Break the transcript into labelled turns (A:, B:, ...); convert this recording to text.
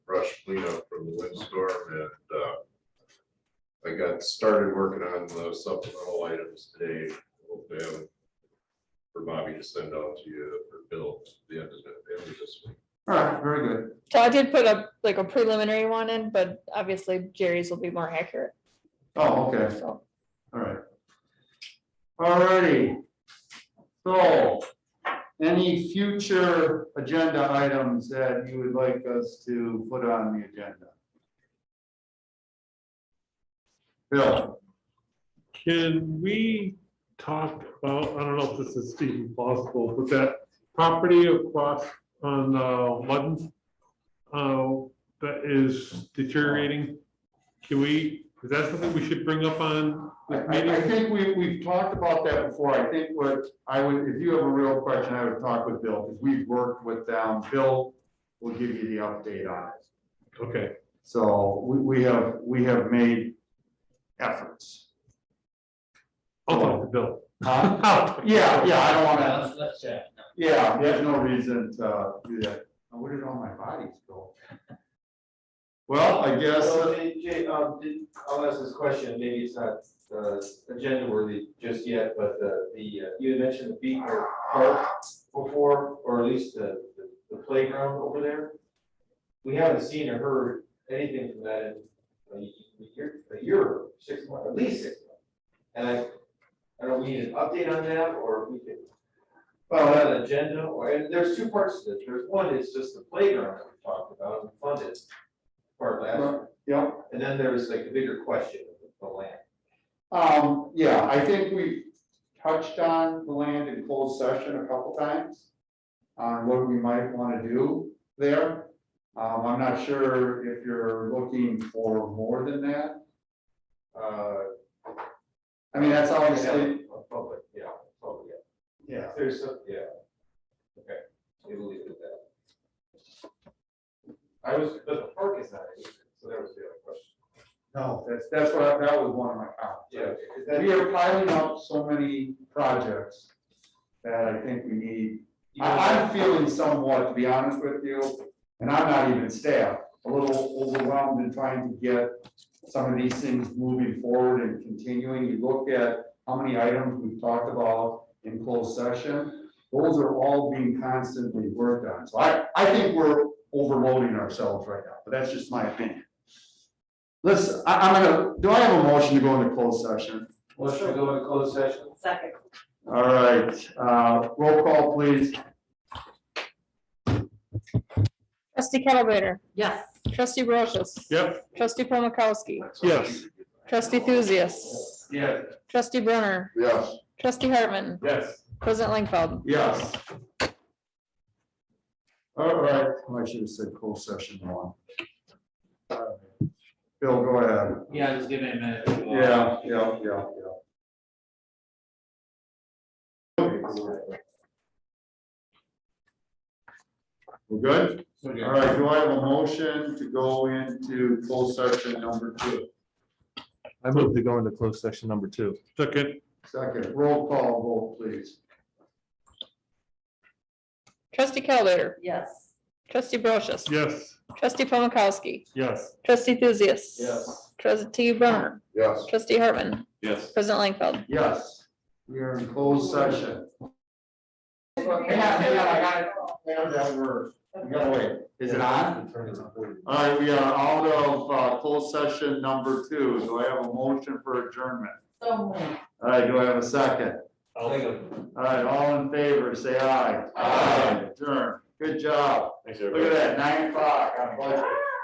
A: brush cleanup from the windstorm and, uh, I got started working on the supplemental items today. Hopefully, I have for Bobby to send out to you for Bill, the end of the, end of this week.
B: All right, very good.
C: So I did put a, like a preliminary one in, but obviously Jerry's will be more accurate,
B: Oh, okay,
C: so.
B: all right. All righty. So, any future agenda items that you would like us to put on the agenda? Bill,
D: Can we talk about, I don't know if this is even possible, but that property across on uh, Ludden uh, that is deteriorating, can we, is that something we should bring up on
B: I,
D: this
B: I- I
D: meeting?
B: think we, we've talked about that before. I think what I would, if you have a real question, I would talk with Bill, because we've worked with them. Bill will give you the update on it.
D: Okay,
B: So we, we have, we have made efforts.
D: I'll talk to Bill.
B: Huh? Yeah, yeah, I don't wanna, yeah, there's no reason to do that. Now, Where did all my bodies go? Well, I guess,
E: So,
B: uh,
E: Jay, Jay, um, did- I'll ask this question, maybe it's not, uh, agenda worthy just yet, but the, the, uh, you had mentioned the beach or park before, or at least the, the playground over there. We haven't seen or heard anything from that in a year, a year, six months, at least six months. And I, I don't know, we need an update on that, or we could file out an agenda, or, and there's two parts to it, there's one is just the playground that we talked about, and funded part last year.
B: yeah,
E: And then there's like the bigger question of the land.
B: um, yeah, I think we touched on the land in closed session a couple times. On what we might wanna do there. Um, I'm not sure if you're looking for more than that.
E: Uh,
B: I mean, that's obviously,
E: yeah, a Public, yeah, public, yeah.
B: yeah.
E: If There's some, yeah. Okay, we'll leave it at that. I was, but the park is not, it either, so that was the other question.
B: No, that's, that's what, I- that was one of my comments.
E: Is
B: We
E: that,
B: are piling up so many projects that I think we need, I,
E: I,
B: I'm feeling somewhat, to be honest with you, and I'm not even staff, a little overwhelmed in trying to get some of these things moving forward and continuing. You look at how many items we've talked about in closed session, those are all being constantly worked on. So I, I think we're overloading ourselves right now, but that's just my opinion. Listen, I, I'm gonna, do I have a motion to go into closed session?
E: let's go into closed session.
F: Second.
B: All right, uh, roll call, please.
C: Trustee Calibrator,
F: Yes.
C: trustee Brochus.
D: Yep,
C: Trustee Paul Mikowski,
D: yes.
C: trustee Thuzius,
B: Yes.
C: trustee Brunner,
A: Yes.
C: trustee Hartman,
D: Yes.
C: president Langfeld.
B: Yes. All right, I should have said closed session one. Bill, go ahead.
G: Yeah, just give it a minute.
B: Yeah, yeah, yeah, yeah. We're good? All right, do I have a motion to go into closed session number two?
H: I move to go into closed session number two.
D: Second,
B: Second, roll call vote, please.
C: Trustee Calibrator,
F: Yes.
C: trustee Brochus.
D: yes,
C: Trustee Paul Mikowski,
D: yes.
C: trustee Thuzius.
E: Yes.
C: Trustee Brunner,
A: Yes.
C: trustee Hartman. Yes. President Langfeld.
B: Yes, we are in closed session. Hang on, hang on, I got it. I got that word. We gotta wait. Is it on? All right, we are out of uh, closed session number two. Do I have a motion for adjournment?
F: So moved.
B: All right, do I have a second?
E: Second.
B: All right, all in favor, say aye.
E: Aye.
B: Adjourn. Good job.
D: Thanks,
B: Look at that, nine o'clock on budget.